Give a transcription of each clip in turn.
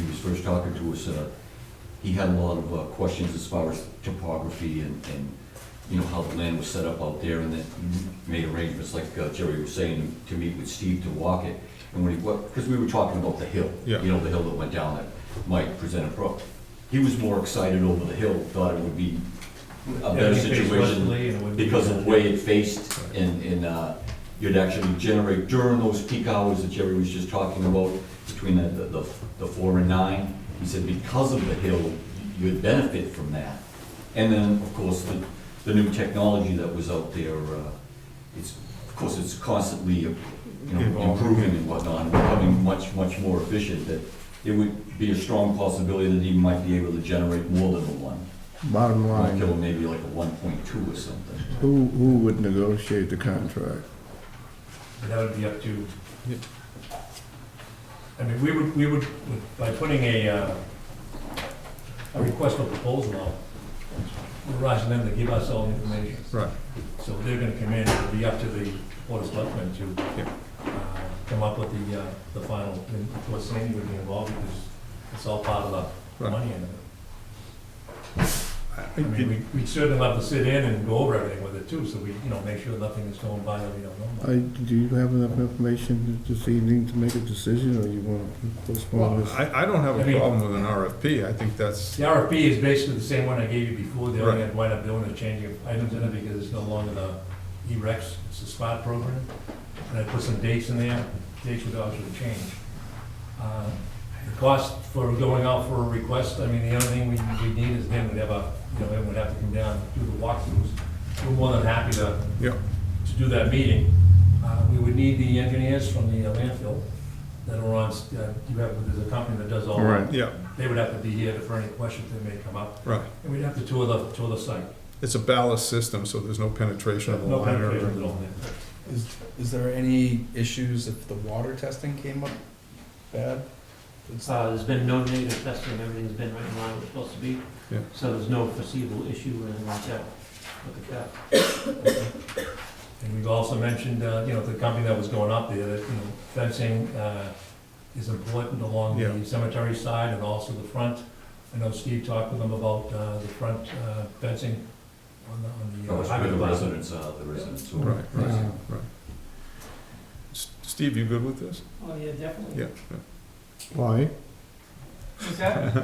first talking to us, uh, he had a lot of uh, questions as far as topography and, and, you know, how the land was set up out there, and then made arrangements, like uh, Jerry was saying, to meet with Steve to walk it. And when he, because we were talking about the hill, you Yeah. know, the hill that went down that Mike presented pro. He was more excited over the hill, thought it would be a better situation because of the way it faced and, and, uh, you'd actually generate during those peak hours that Jerry was just talking about, between the, the, the four and nine, he said because of the hill, you'd benefit from that. And then, of course, the, the new technology that was out there, uh, it's, of course, it's constantly, you know, Evolving. improving and whatnot, and becoming much, much more efficient, that it would be a strong possibility that he might be able to generate more than the one. Bottom Might kill line, him maybe like a one point two or something. who, who would negotiate the contract? That would be up to, Yep. I mean, we would, we would, by putting a, uh, a request for proposal out, we're asking them to give us all the information. Right. So they're gonna come in, it'll be up to the Board of Selectmen to Yep. uh, come up with the, uh, the final, and of course Sandy would be involved because it's all part of the Right. money end of it. I mean, It- we- we'd certainly love to sit in and go over everything with it too, so we, you know, make sure nothing is going by that we don't know about. I, do you have enough information this evening to make a decision, or you want to postpone this? I, I don't have I a mean- problem with an RFP, I think that's, The RFP is basically the same one I gave you before, the only thing I wind up doing is changing items in it because it's no longer the E-Rex, it's the SPOT program. And I put some dates in there, dates would obviously change. Uh, The cost for going out for a request, I mean, the only thing we, we need is then we'd have a, you know, everyone would have to come down, do the walkthroughs. We're more than happy to, yeah, to do that meeting. Uh, We would need the engineers from the landfill that are on, s- uh, you have, there's a company that does all that. Right. yeah, They would have to be here for any questions that may come up, right. and we'd have to tour the, tour the site. It's a ballast system, so there's no penetration of the No line or penetrations at all there. Is, is there any issues if the water testing came up bad? It's- Uh, there's been no negative testing, everything's been right in line where it's supposed to be. Yeah. So there's no foreseeable issue or anything like that with the cap. And we've also mentioned, uh, you know, the company that was going up there, that, you know, fencing uh, is important along Yeah. the cemetery side and also the front. I know Steve talked with them about uh, the front uh, fencing on the, on the. uh, Or highway where the department. residents are, the residents. who are- Right, right, Uh, right. S- Steve, you good with this? Oh, yeah, definitely. Yeah. Why? What's that?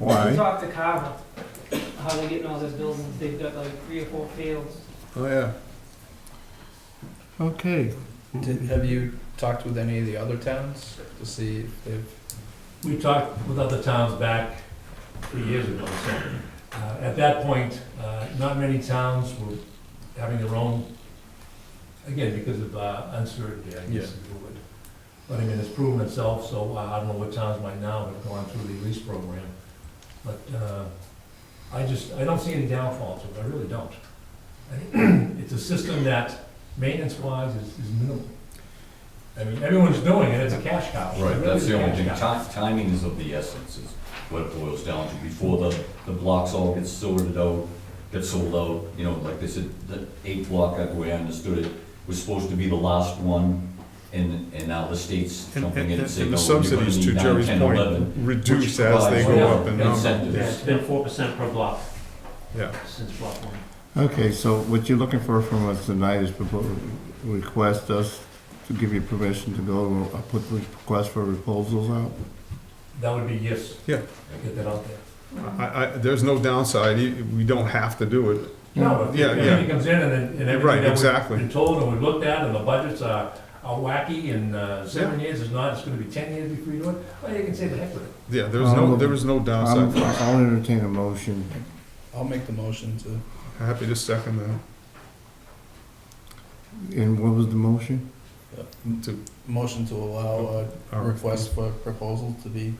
Why? Talk to Carver, how they're getting all those buildings, they've got like three or four fields. Oh, yeah. Okay, Did, have you talked with any of the other towns to see if they've? We talked with other towns back three years ago, so, uh, at that point, uh, not many towns were having their own, again, because of uh, uncertainty, I Yeah. guess, is the word. But I mean, it's proven itself, so uh, I don't know what towns might now have gone through the lease program. But, uh, I just, I don't see any downfall to it, I really don't. I think It's a system that maintenance-wise is, is minimal. I mean, everyone's doing it, it's a cash cow. It Right, really that's is a the only cash thing, cow. Ti- timing is of the essence, is what it boils down to, before the, the blocks all get sorted out, get sold out, you know, like they said, the eight block, that way I understood it, was supposed to be the last one, and, and now the state's And, jumping and- in and saying, and no, the you're gonna subsidies, to need nine, Jerry's ten, point, eleven. reduce which as provides they go up in more number. Yeah, Incentives, it's been four percent per block Yeah, since block one. okay, so what you're looking for from us tonight is propo- request us to give you permission to go, uh, put request for proposals out? That would be yes. Yeah. Get that out there. I, I, there's no downside, You- we don't have to do it. No, if Yeah, if yeah. he comes in and, then- and Right, everything that exactly. we've been told and we've looked at and the budgets are, are wacky and, uh, seven years is not, it's gonna be ten years before you do it, well, you can say the heck with it. Yeah, there's no, Um, there is no I'm- downside. I'll entertain a motion. I'll make the motion to. Happy to second that, And what was the motion? to. Motion to uh, allow a request for proposal to be,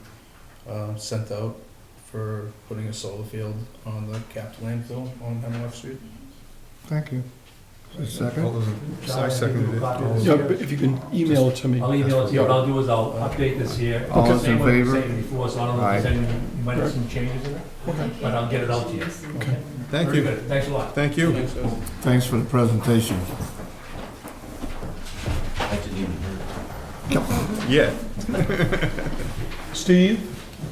uh, sent out for putting a solar field on the capped landfill on Hemlock Street. Thank you. A All second? those in- I seconded it. All those- Yeah, but if you can email it to me. I'll email it to you, what I'll do is I'll update this here. All those Same in way I favor? said Before, so I don't know if there's any, you might have some changes in it, but I'll get it out to you. Thank Very you, good. Thanks a lot. thank you. Thanks, guys. Thanks for the presentation. I didn't even hear. Yeah. Steve,